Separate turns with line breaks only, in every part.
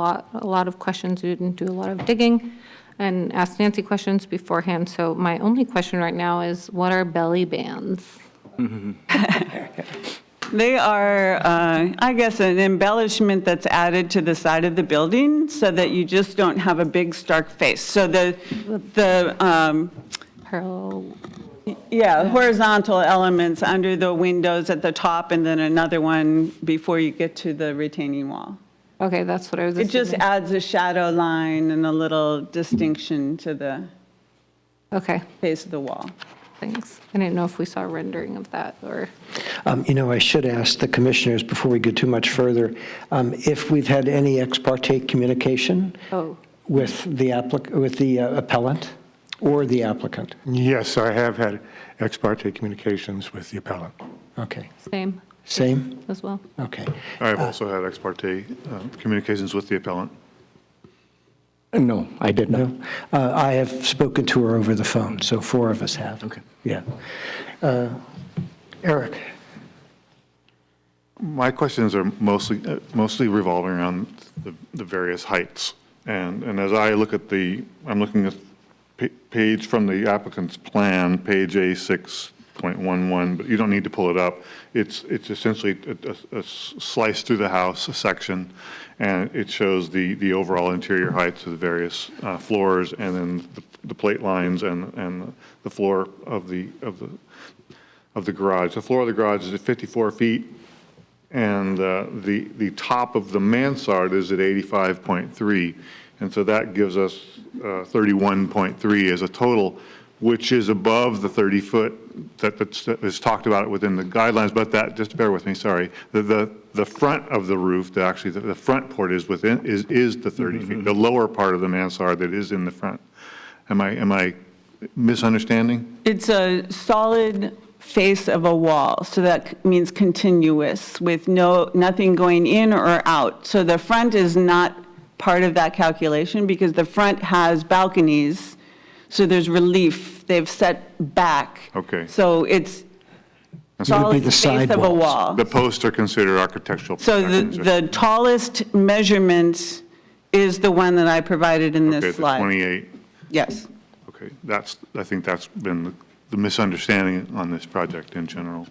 lot, a lot of questions, we didn't do a lot of digging, and asked Nancy questions beforehand, so my only question right now is, what are belly bands?
They are, uh, I guess, an embellishment that's added to the side of the building so that you just don't have a big stark face. So the, the, um,
Pearl,
yeah, horizontal elements under the windows at the top and then another one before you get to the retaining wall.
okay, that's what I was
It just
assuming.
adds a shadow line and a little distinction to the
Okay,
face of the wall.
thanks. I didn't know if we saw a rendering of that, or,
Um, You know, I should ask the commissioners before we go too much further, um, if we've had any ex parte communication
oh,
with the applic, with the uh, appellant or the applicant?
Yes, I have had ex parte communications with the appellant.
Okay,
same
same?
as well.
Okay.
I've also had ex parte uh, communications with the appellant.
No, I did not. Uh, I have spoken to her over the phone, so four of us have. Okay. Yeah. Uh, Eric?
My questions are mostly, uh, mostly revolving around the, the various heights. And, and as I look at the, I'm looking at pa- page from the applicant's plan, page A6.11, but you don't need to pull it up. It's, it's essentially a- a a slice through the house, a section, and it shows the, the overall interior heights of the various uh, floors and then the- the plate lines and, and the floor of the, of the, of the garage. The floor of the garage is at 54 feet. And uh, the, the top of the mansard is at 85.3. And so that gives us uh, 31.3 as a total, which is above the 30-foot that, that's- that is talked about within the guidelines. But that, just bear with me, sorry, the, the, the front of the roof, the- actually, the, the front port is within, is, is the 30 feet, the lower part of the mansard that is in the front. Am I, am I misunderstanding?
It's a solid face of a wall, so that c- means continuous, with no, nothing going in or out. So the front is not part of that calculation, because the front has balconies, so there's relief, they've set back.
Okay.
So it's
would be
solid
the
face of a
sidewalls.
wall.
The posts are considered architectural.
Uh-huh. So the,
protections, I
the tallest measurement is the one that I provided in
Okay,
this
the
slide.
28.
Yes.
Okay, that's, I think that's been the- the misunderstanding on this project in general.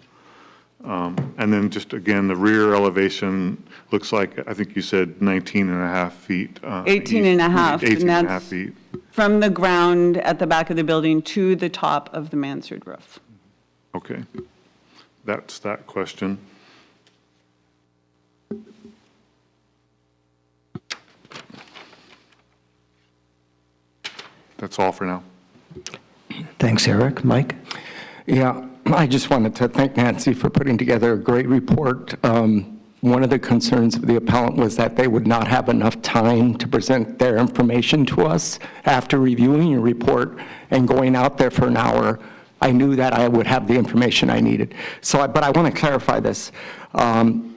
Um, And then just again, the rear elevation looks like, I think you said 19 and a half feet. uh,
18 and a
east-
half, and
18 and a half
that's-
feet.
From the ground at the back of the building to the top of the mansard roof.
Okay. That's that question. That's all for now.
Thanks, Eric. Mike?
Yeah, I just wanted to thank Nancy for putting together a great report. Um, One of the concerns of the appellant was that they would not have enough time to present their information to us after reviewing your report and going out there for an hour. I knew that I would have the information I needed. So, I- but I want to clarify this. Um,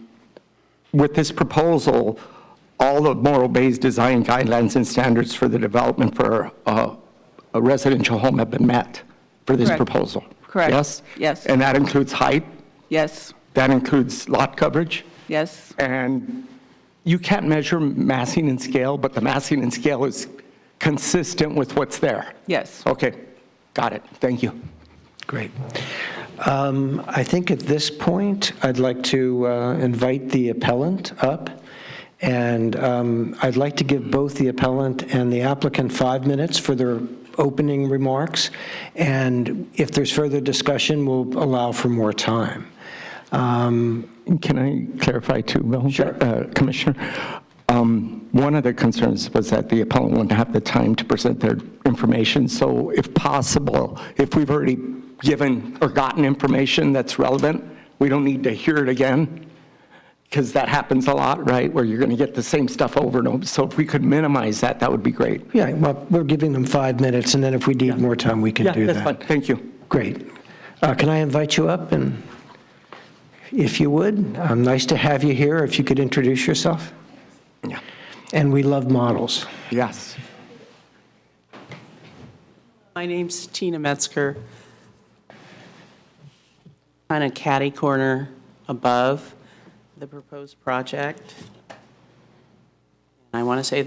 with this proposal, all of Morro Bay's design guidelines and standards for the development for uh, a residential home have been met for this
Correct.
proposal?
Correct.
Yes?
Yes.
And that includes height,
Yes,
that includes lot coverage,
yes,
and you can't measure massing and scale, but the massing and scale is consistent with what's there?
yes.
Okay, got it, thank you.
Great. Um, I think at this point, I'd like to uh, invite the appellant up, and um, I'd like to give both the appellant and the applicant five minutes for their opening remarks, and if there's further discussion, we'll allow for more time. Um,
Can I clarify too, Bill? Uh, Commissioner, um, one of the concerns was that the appellant wouldn't have the time to present their information, so if possible, if we've already given or gotten information that's relevant, we don't need to hear it again, because that happens a lot, right, where you're going to get the same stuff over and over. So if we could minimize that, that would be great.
Yeah, well, we're giving them five minutes, and then if we need more time, we can
Yeah,
do that.
that's fine, thank you.
Great. Uh, Can I invite you up, and if you would? um, Nice to have you here, if you could introduce yourself.
Yeah.
And we love models.
Yes.
My name's Tina Metzger. On a catty corner above the proposed project. I want to say